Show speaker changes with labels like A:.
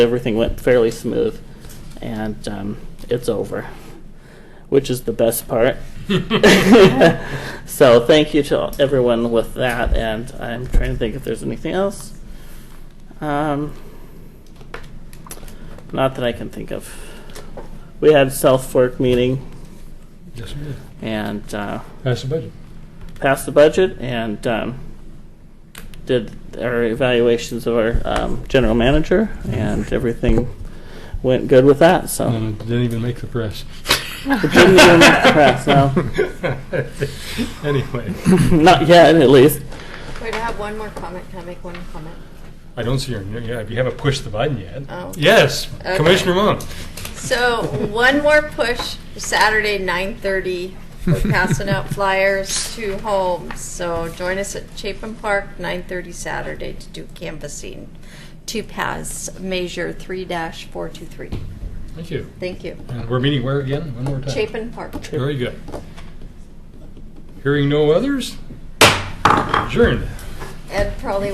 A: everything went fairly smooth, and um, it's over, which is the best part. so thank you to everyone with that, and I'm trying to think if there's anything else. Um, not that I can think of. We had self-work meeting
B: Yes, we did.
A: and uh,
B: Pass the budget.
A: passed the budget and um, did our evaluations of our um, general manager, and everything went good with that. So.
B: And it didn't even make the press.
A: Oh. It didn't even make the press, no.
B: Anyway,
A: Not yet, at least.
C: Wait, I have one more comment. Can I make one comment?
B: I don't see your, yeah, you haven't pushed the button yet.
C: Oh.
B: Yes,
C: Okay.
B: Commissioner Mon.
C: So one more push Saturday, 9:30. We're passing out flyers to homes. So join us at Chapin Park, 9:30 Saturday to do canvassing to pass Measure 3-423.
B: Thank you.
C: Thank you.
B: And we're meeting where again? One more time?
C: Chapin Park.
B: Very good. Hearing no others? Adjourned.
C: Ed probably